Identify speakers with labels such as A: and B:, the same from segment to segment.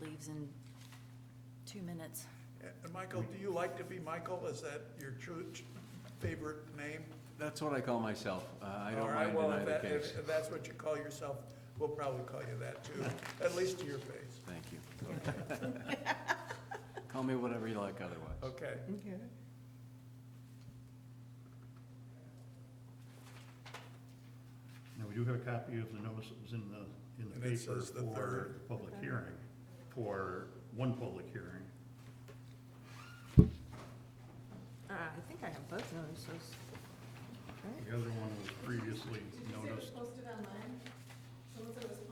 A: leaves in two minutes.
B: And Uh, Michael, do you like to be Michael? Is that your true ch- favorite name?
C: That's what I call myself. Uh, I
B: All
C: don't
B: right,
C: mind
B: well,
C: denying
B: if
C: the
B: that- if-
C: case.
B: If that's what you call yourself, we'll probably call you that too, at least to your face.
C: Thank you. Call me whatever you like otherwise.
B: Okay.
D: Okay.
E: Now, we do have a copy of the notice that was in the, in the
B: And it
E: paper
B: says the
E: for
B: third.
E: the public hearing, for one public hearing.
D: Uh, I think I have both notices. Right?
E: The other one was previously noticed.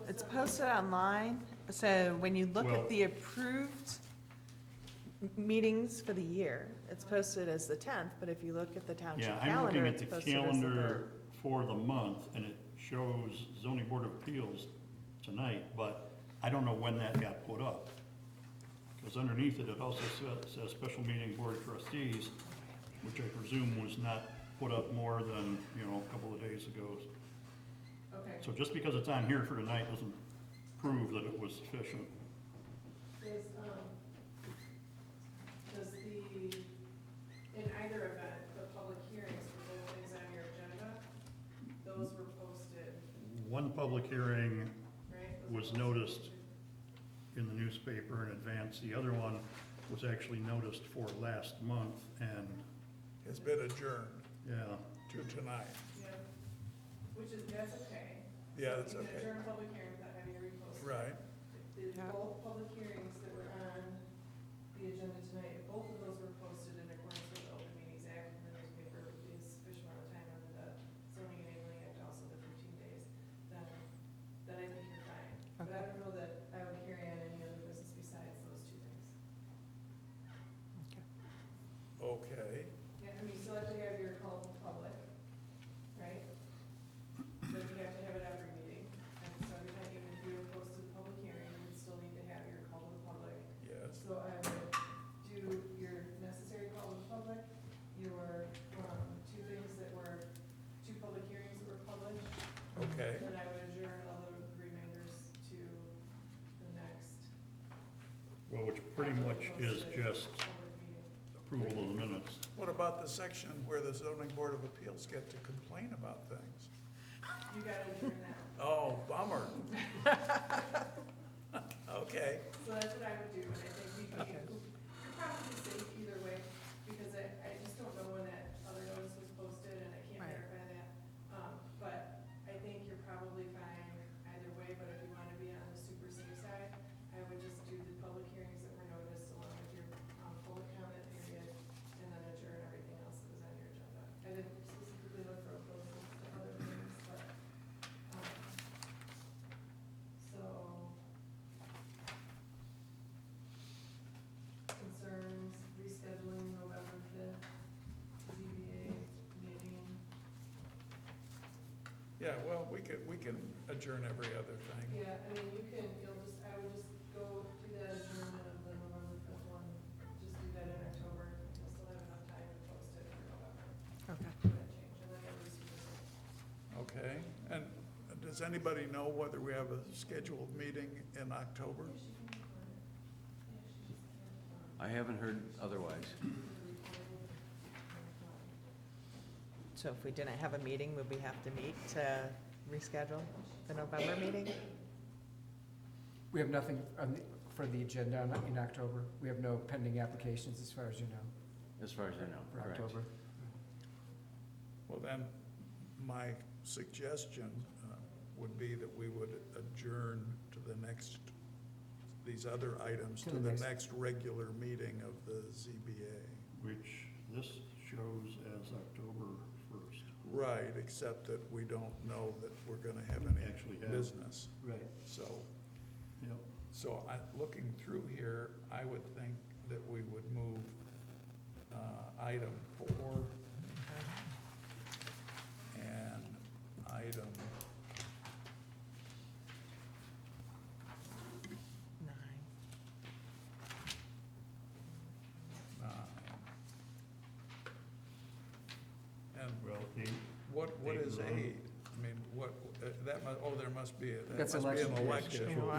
D: It's posted online, so when you look
E: Well-
D: at the approved m- meetings for the year, it's posted as the tenth, but if you look at the
E: Yeah,
D: township
E: I'm looking
D: calendar,
E: at
D: it's
E: the
D: posted as the
E: calendar
D: third.
E: for the month, and it shows zoning board of appeals tonight, but I don't know when that got put up. Because underneath it, it also sa- says special meeting board of trustees, which I presume was not put up more than, you know, a couple of days ago.
F: Okay,
E: So just because it's on here for tonight doesn't prove that it was sufficient.
F: does, um, does the, in either event, the public hearings, for both things on your agenda, those were posted,
E: One public hearing
F: right?
E: was
F: Those were posted.
E: noticed in the newspaper in advance. The other one was actually noticed for last month, and,
B: It's been adjourned
E: yeah,
B: to tonight.
F: Yeah, which is, that's okay.
B: Yeah, that's
F: You can
B: okay.
F: adjourn a public hearing without having to repost.
B: Right.
F: The,
D: Yeah.
F: both public hearings that were on the agenda tonight, both of those were posted in accordance with the Open Meetings Act and the newspaper is sufficient amount of time under the zoning enabling act, also the fifteen days. Then, then I think you're fine. But I don't know that I would carry on any other business besides those two things.
B: Okay.
F: Yeah, I mean, you still have to have your call to public, right? But you have to have it every meeting, and so every time, even if you were posted public hearing, you would still need to have your call to the public.
B: Yes.
F: So I would do your necessary call to the public, your, um, two things that were, two public hearings that were published,
B: Okay.
F: and I would adjourn all the remainders to the next
E: well, which pretty much is just
F: public meeting.
E: approval of the minutes.
B: What about the section where the zoning board of appeals get to complain about things?
F: You gotta adjourn that.
B: Oh, bummer. Okay.
F: So that's what I would do, and I think we could, you're probably safe either way, because I, I just don't know when that other notice was posted, and I can't
D: Right.
F: verify that. Um, but I think you're probably fine either way, but if you wanna be on the super safe side, I would just do the public hearings that were noticed along with your, um, public comment period, and then adjourn everything else that was on your agenda. I didn't specifically look for opposed to other things, but, um, so. concerns, rescheduling November fifth, ZBA meeting.
B: Yeah, well, we could, we can adjourn every other thing.
F: Yeah, I mean, you can, you'll just, I would just go do that adjournment of the November fifth one, just do that in October, you'll still have enough time to post it for November,
D: Okay.
F: if that change, and then you'll just.
B: Okay. And does anybody know whether we have a scheduled meeting in October?
F: Yeah, she can record it. Yeah, she just can't, um,
C: I haven't heard otherwise.
F: record it.
D: So if we didn't have a meeting, would we have to meet to reschedule the November meeting? Uh,
G: We have nothing on the, for the agenda on- in October. We have no pending applications, as far as you know,
C: As far as I know,
G: for
C: correct.
G: October.
B: Well, then, my suggestion uh, would be that we would adjourn to the next, these other items to the next regular meeting of the ZBA.
E: Which this shows as October first.
B: Right, except that we don't know that we're gonna have any
E: Actually have.
B: business.
E: Right.
B: So,
E: Yep,
B: so I, looking through here, I would think that we would move, uh, item four and item,
D: Nine.
B: nine. And
E: well, eight,
B: what, what
E: Eight
B: is
E: and nine.
B: eight? I mean, what, uh, that mu, oh, there must be, a- that
G: That's
B: must be an
G: election day
B: election.
D: schedule.